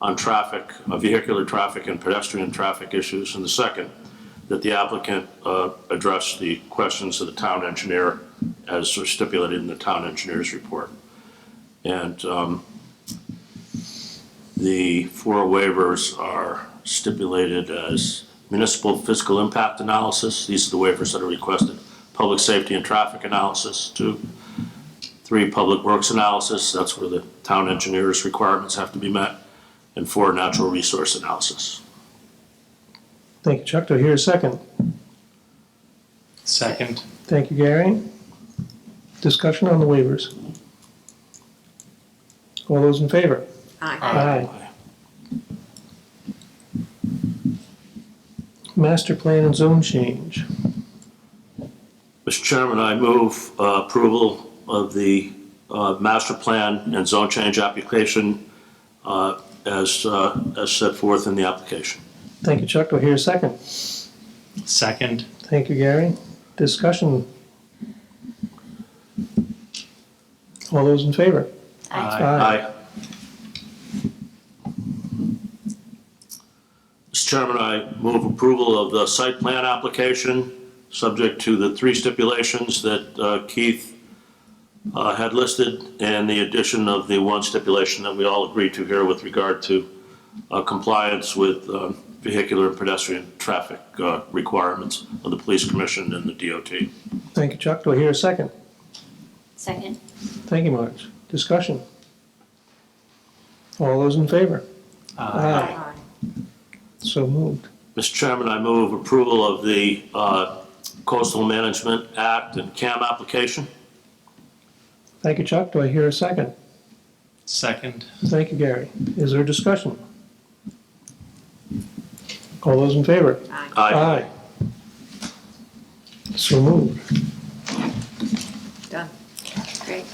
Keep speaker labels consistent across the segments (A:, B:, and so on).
A: on traffic, uh, vehicular traffic and pedestrian traffic issues. And the second, that the applicant uh, address the questions of the town engineer as stipulated in the town engineer's report. And um, the four waivers are stipulated as municipal fiscal impact analysis. These are the waivers that are requested. Public safety and traffic analysis, two. Three, public works analysis, that's where the town engineer's requirements have to be met. And four, natural resource analysis.
B: Thank you, Chuck. Do I hear a second?
C: Second.
B: Thank you, Gary. Discussion on the waivers. All those in favor?
D: Aye.
C: Aye.
B: Master plan and zone change.
A: Mr. Chairman, I move uh, approval of the uh, master plan and zone change application uh, as, uh, as set forth in the application.
B: Thank you, Chuck. Do I hear a second?
C: Second.
B: Thank you, Gary. Discussion. All those in favor?
A: Aye. Mr. Chairman, I move approval of the site plan application, subject to the three stipulations that uh, Keith uh, had listed, and the addition of the one stipulation that we all agreed to here with regard to uh, compliance with uh, vehicular and pedestrian traffic uh, requirements of the police commission and the DOT.
B: Thank you, Chuck. Do I hear a second?
D: Second.
B: Thank you, Marge. Discussion. All those in favor?
C: Aye.
B: So moved.
A: Mr. Chairman, I move approval of the uh, Coastal Management Act and CAM application.
B: Thank you, Chuck. Do I hear a second?
C: Second.
B: Thank you, Gary. Is there discussion? All those in favor?
D: Aye.
A: Aye.
B: So moved.
D: Done. Great.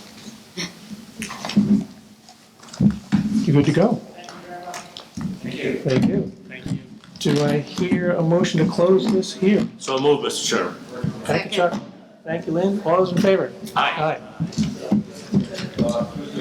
B: You good to go? Thank you.
C: Thank you.
B: Do I hear a motion to close this here?
A: So move, Mr. Chairman.
B: Thank you, Chuck. Thank you, Lynn. All those in favor?
A: Aye.
B: Aye.